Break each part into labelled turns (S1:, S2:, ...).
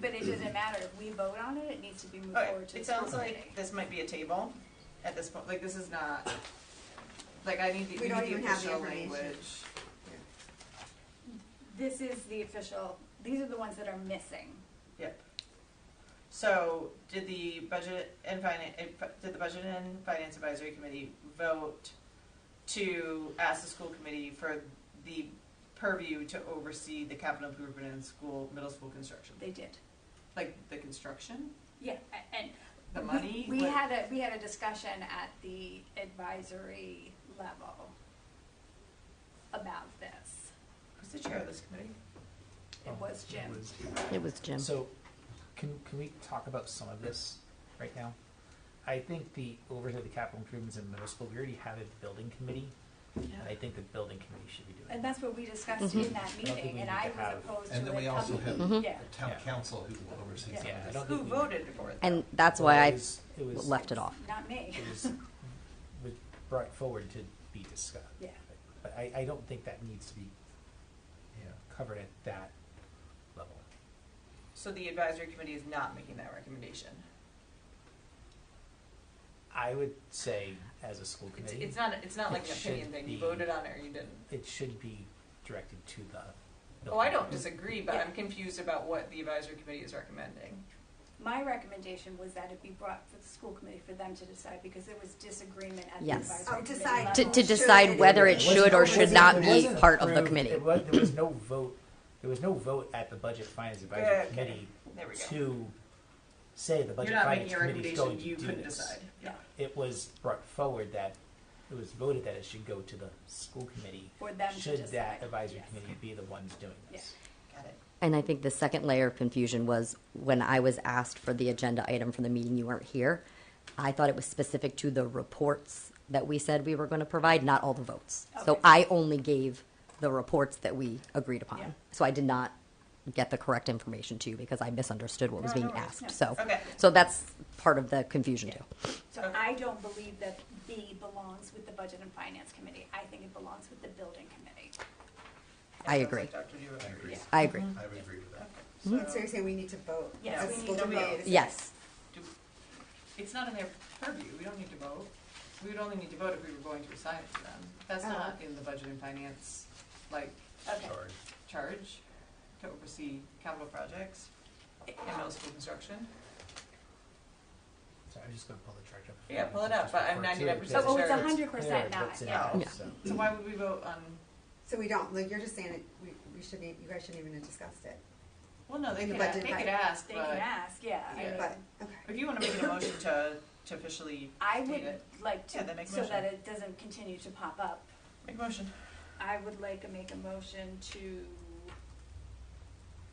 S1: but it doesn't matter, if we vote on it, it needs to be moved
S2: Okay,
S1: forward to the
S2: it
S1: school
S2: sounds like
S1: committee.
S2: this might be a table at this point, like this is not, like I need the,
S3: We
S2: we
S3: don't
S2: need
S3: even
S2: the
S3: have the
S2: official
S3: information.
S2: language.
S1: This is the official, these are the ones that are missing.
S2: Yep. So, did the budget and finance, did the budget and finance advisory committee vote to ask the school committee for the purview to oversee the capital improvement in school, middle school construction?
S1: They did.
S2: Like the construction,
S1: Yeah, a- and.
S2: the
S1: we-
S2: money?
S1: We
S2: Like-
S1: had a, we had a discussion at the advisory level about this.
S2: Who's the chair of this committee?
S1: It
S4: Oh,
S1: was Jim.
S5: It was Jim.
S4: So, can, can we talk about some of this right now? I think the oversight of the capital improvements in middle school, we already have a building committee, and I think the building committee should be doing
S1: And
S4: that.
S1: that's what we discussed in that
S4: think
S1: meeting,
S4: we
S1: and
S4: need
S1: I
S4: to
S1: was
S4: have-
S1: opposed to it.
S6: And then we also
S1: coming-
S6: have
S1: Yeah,
S6: the town
S4: Yeah.
S6: council who will oversee some
S4: Yeah, I
S6: of this.
S4: don't
S2: Who
S4: think we-
S2: voted for it?
S5: And that's why
S4: It
S5: I
S4: was- it was-
S5: left it off.
S1: not me.
S4: It was, was brought forward to be discussed.
S1: Yeah.
S4: But I, I don't think that needs to be
S6: Yeah.
S4: covered at that level.
S2: So the advisory committee is not making that recommendation.
S4: I would say, as a school
S2: It's,
S4: committee,
S2: it's not, it's not like
S4: It
S2: an opinion
S4: should
S2: thing, you
S4: be-
S2: voted on it or you didn't.
S4: it should be directed to the.
S2: Oh, I don't
S4: building.
S2: disagree, but I'm
S1: Yeah.
S2: confused about what the advisory committee is recommending.
S1: My recommendation was that it be brought for the school committee for them to decide, because there was disagreement at the
S5: Yes.
S1: advisory
S3: Oh,
S1: committee
S3: decide.
S1: level.
S5: To, to
S3: Should
S5: decide
S3: it-
S5: whether it
S3: It
S4: wasn't-
S5: should or should
S4: wasn't-
S5: not
S4: it
S5: be
S4: wasn't
S5: part of the
S4: approved.
S5: committee.
S4: It was, there was no vote, there was no vote at the Budget Finance
S2: Yeah,
S4: Advisory
S2: okay.
S4: Committee
S2: There we go.
S4: to say the
S2: You're
S4: Budget
S2: not making
S4: Finance
S2: a
S4: Committee is going
S2: recommendation,
S4: to do this.
S2: you couldn't decide. Yeah.
S4: It was brought forward that, it was voted that it should go to the school committee.
S1: For them to
S4: Should that
S1: decide.
S4: advisory
S1: Yes.
S4: committee be the ones doing this?
S2: Got it.
S5: And I think the second layer of confusion was when I was asked for the agenda item for the meeting, you weren't here. I thought it was specific to the reports that we said we were going to provide, not all the votes. So
S1: Okay.
S5: I only gave the reports that we agreed
S1: Yeah.
S5: upon. So I did not get the correct information to you because I misunderstood what was
S1: No,
S5: being
S1: no worries. No.
S5: asked. So,
S2: Okay.
S5: so that's part of the confusion too.
S1: So I don't believe that B belongs with the budget and finance committee, I think it belongs with the building committee.
S5: I
S2: Sounds
S5: agree.
S2: like Dr. Dewar
S6: I agree.
S2: agrees.
S5: I agree.
S1: Mm-hmm.
S6: I would agree with that.
S2: So,
S3: So you're saying we need to vote?
S1: Yes,
S3: As
S1: we
S3: a
S1: need
S3: school
S1: to
S3: committee
S1: vote.
S5: Yes.
S2: do- It's not in their purview, we don't need to vote. We would only need to vote if we were going to assign it to them. That's
S3: Oh.
S2: not in the budget and finance, like,
S1: Okay,
S6: Sorry.
S2: charge to oversee capital projects and middle school construction.
S4: So I'm just gonna pull the chart up.
S2: Yeah, pull it up, but I'm
S4: Just
S2: 99%
S4: refer
S1: oh,
S4: to
S1: it's
S4: it,
S1: a
S2: sure.
S1: hundred
S4: because
S1: percent
S4: clear
S1: not,
S4: what's
S1: yeah,
S4: involved,
S5: Yeah.
S4: so.
S2: So why would we vote on,
S3: So we don't, like, you're just saying it, we, we shouldn't, you guys shouldn't even have discussed it.
S2: well, no, they
S3: The
S2: could,
S3: budget
S2: they
S3: and
S2: could
S3: finance.
S2: ask,
S1: they
S2: but
S1: can ask, yeah, I
S2: Yeah.
S1: mean,
S3: But, okay.
S2: if you wanna make an emotion to, to officially
S1: I
S2: state
S1: would
S2: it,
S1: like
S2: Yeah,
S1: to,
S2: then make a
S1: so that
S2: motion.
S1: it doesn't continue to pop up,
S2: make a motion.
S1: I would like to make a motion to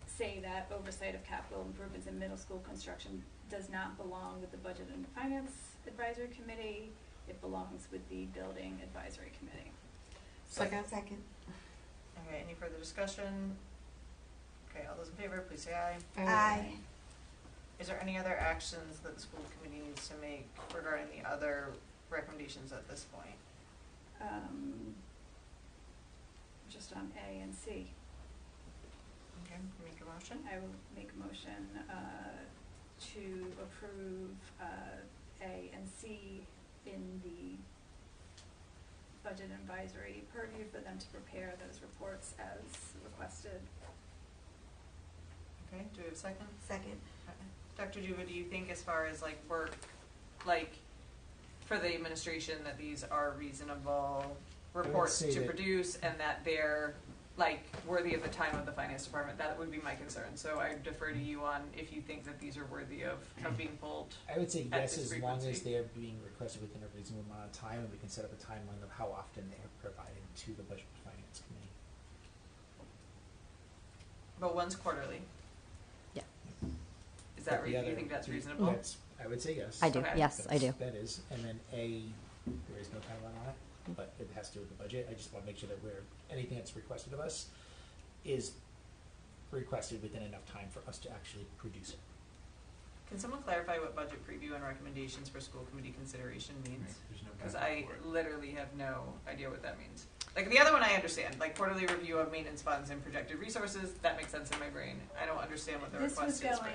S1: say that oversight of capital improvements in middle school construction does not belong with the Budget and Finance Advisory Committee. It belongs with the Building Advisory Committee.
S2: Second.
S3: Second.
S2: Okay, any further discussion? Okay, all those in favor, please say aye.
S3: Aye.
S2: Is there any other actions that the school committee needs to make regarding the other recommendations at this point?
S1: Um, Just on A and C,
S2: Okay, make a motion.
S1: I will make a motion uh, to approve uh, A and C in the Budget Advisory purview for them to prepare those reports as requested.
S2: Okay, do we have a second?
S3: Second.
S2: Dr. Juva, do you think as far as like work, like for the administration, that these are reasonable
S4: would
S2: reports
S4: say
S2: to
S4: that-
S2: produce and that they're like worthy of the time of the finance department? That would be my concern. So I defer to you on if you think that these are worthy of, of being pulled.
S4: I would say
S2: at
S4: yes,
S2: this
S4: as long as
S2: frequency.
S4: they are being requested within a reasonable amount of time, and we can set up a timeline of how often they are provided to the Budget and Finance Committee.
S2: But one's quarterly.
S5: Yeah.
S2: Is that,
S4: But the
S2: re- do
S4: other-
S2: you think that's
S4: the-
S2: reasonable?
S4: that's- I would say yes.
S5: I do.
S2: Okay.
S5: Yes, I do.
S4: That's- That is, and then A, there is no timeline on it, but it has to do with the budget, I just wanna make sure that we're, anything that's requested of us is requested within enough time for us to actually produce it.
S2: Can someone clarify what budget preview and recommendations for school committee consideration means?
S6: There's no
S2: Because
S6: backup
S2: I
S6: for it.
S2: literally have no idea what that means. Like the other one, I understand, like quarterly review of maintenance funds and projected resources. That makes sense in my brain. I don't understand what the
S1: This
S2: request
S1: was
S2: is.
S1: going